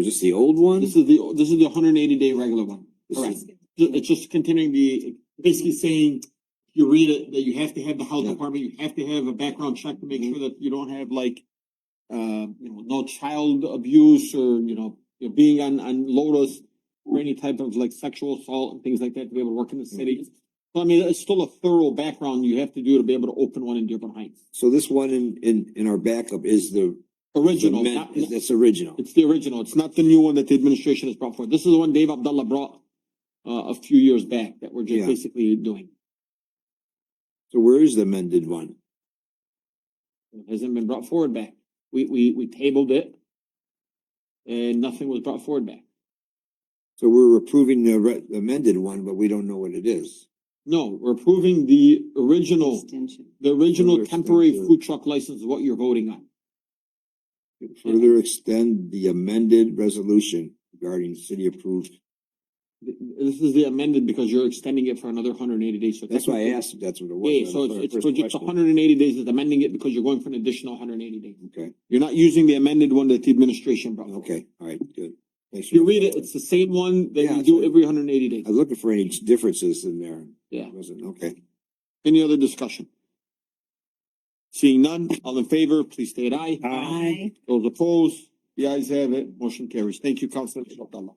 Is this the old one? This is the, this is the hundred and eighty day regular one. This Correct. is- Ju- It's just continuing the, basically saying, you read it, that you have to have the health Yeah. Mm-hmm. department, you have to have a background check to make sure that you don't have like, uh, you know, no child abuse or, you know, you're being on, on Lotus or any type of like sexual assault and things like that to be able to work in the Mm-hmm. city. So I mean, it's still a thorough background you have to do to be able to open one in Dearborn Heights. So this one in, in, in our backup is the, the Original, men, not, is this original? it's the original. It's not the new one that the administration has brought forward. This is the one Dave Abdullah brought, uh, a few years back that we're Yeah. just basically doing. So where is the amended one? It hasn't been brought forward back. We, we, we tabled it. And nothing was brought forward back. So we're approving the re- amended one, but we don't know what it is. No, we're approving the original, the original Understood. temporary food truck license is what you're voting on. Mm-hmm. Further extend the amended resolution regarding city approved. Th- This is the amended because you're extending it for another hundred and eighty days. So That's why I technically- asked if that's what it was. Yeah, That so was my it's, it's first for just question. hundred and eighty days, it's amending it because you're going for an additional hundred and eighty days. Okay, You're not using the amended one that the administration brought. forward. okay, all right, good. Thanks If you for- read it, it's the same one that Yeah, we it's do right. every hundred and eighty days. I was looking for any differences in there. Yeah. It Wasn't, okay. Any other discussion? Seeing none, all in favor, please state aye. Aye. Those opposed, the ayes have it, motion carries. Thank you, Councilor Abdullah.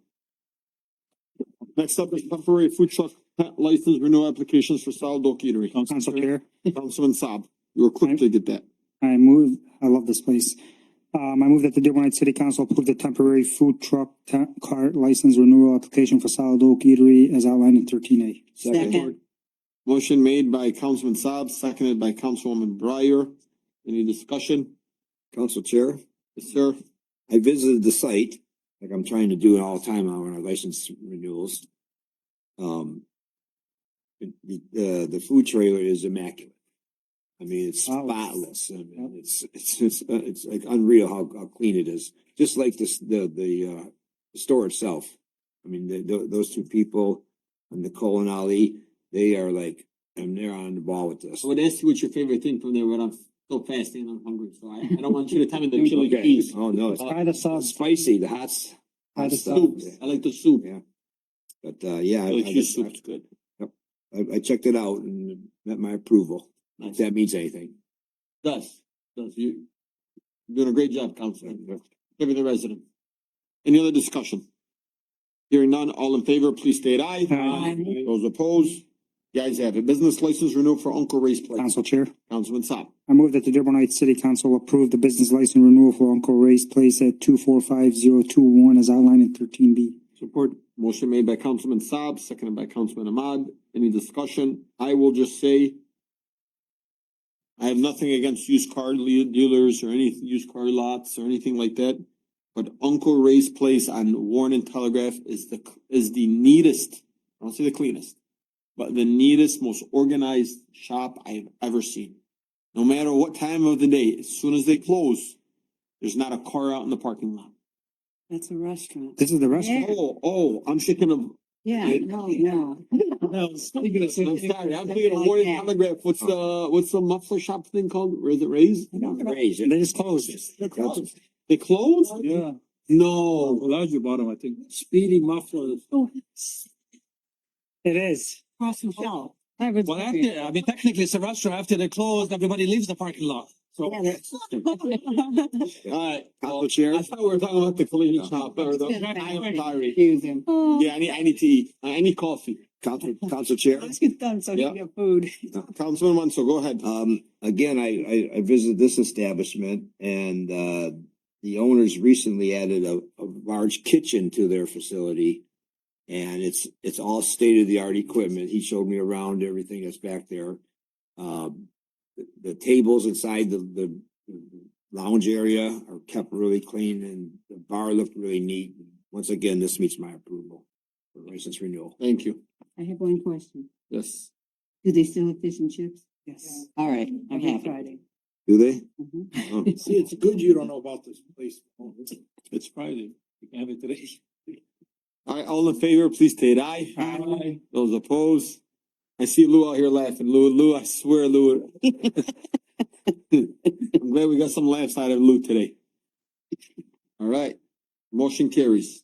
Next up is temporary food truck license renewal applications for Saldo Eatery. Council Chair, Councilman Saab, you were quick to get that. I move, I love this place. Um, I move that the Dearborn Heights City Council approve the temporary food truck ta- cart license renewal application for Solid Oak Eatery as outlined in thirteen A. Second. Motion made by Councilman Saab, seconded by Councilwoman Breyer. Any discussion? Council Chair, Yes, sir. I visited the site, like I'm trying to do it all the time on our license renewals. Um, the, the, the food trailer is immaculate. I mean, it's Spotless. spotless. I mean, it's, it's, it's, uh, it's like unreal how, how clean it is. Just like this, the, the, uh, the store itself. I mean, the, tho- those two people, Nicole and Ali, they are like, and they're on the ball with this. I would ask you what's your favorite thing from there, but I'm still fasting and I'm hungry, so I, I don't want you to tell me the chili Okay. cheese. Oh, no, it's Try the sauce. spicy, the hot, s- Try hot the stuff. Soup, I like the soup. Yeah. But, uh, yeah. I- Chili I- cheese soup's good. I, I checked it out and met my approval, if Nice. that means anything. Does, does. You, you're doing a great job, Counselor, giving the resident. Any other discussion? Hearing none, all in favor, please state aye. Aye. Those opposed, the ayes have it. Business license renewal for Uncle Ray's Place. Council Chair, Councilman Saab. I move that the Dearborn Heights City Council approve the business license renewal for Uncle Ray's Place at two four five zero two one as outlined in thirteen B. Support. Motion made by Councilman Saab, seconded by Councilman Ahmad. Any discussion? I will just say I have nothing against used car le- dealers or any used car lots or anything like that. But Uncle Ray's place on Warren and Telegraph is the, is the neatest, I don't say the cleanest, but the neatest, most organized shop I have ever seen. No matter what time of the day, as soon as they close, there's not a car out in the parking lot. That's a restaurant. This is the restaurant. Oh, oh, I'm thinking of Yeah, no, no. No, thinking I'm of something sorry, I'm that's thinking of like Warren that. Telegraph, what's the, what's the uh, muffler shop thing called, or is it Ray's? Raise it. They just closed it. They're closed. They closed? Yeah, No, Bellagio bought them, I think. Speedy muffler. It is. Oh, Cross and Shell. Well, after, I mean, technically it's a restaurant. After they're closed, everybody leaves the parking lot. So Yeah, that's- alright, Council I Chair, thought we were talking about the collision shop, or the, It's I am been sorry. confusing. Yeah, I need, I need to eat, I I need coffee. Council, Council Chair, Let's get done so we Yeah. can get food. uh, Councilman Wanso, go ahead. um, again, I, I, I visited this establishment and, uh, the owners recently added a, a large kitchen to their facility. And it's, it's all state of the art equipment. He showed me around everything that's back there. Um, the, the tables inside the, the lounge area are kept really clean and the bar looked really neat. Once again, this meets my approval for license renewal. Thank you, I have one question. yes. Do they still have fish and chips? Yes. All right, I Every have it. Do they? Mhm. Oh. see, it's good you don't know about this place. It's Friday. You can have it today. Alright, all in favor, please state aye. Aye. Those opposed? I see Lou out here laughing. Lou, Lou, I swear, Lou. I'm glad we got some laughs out of Lou today. Alright, Motion carries.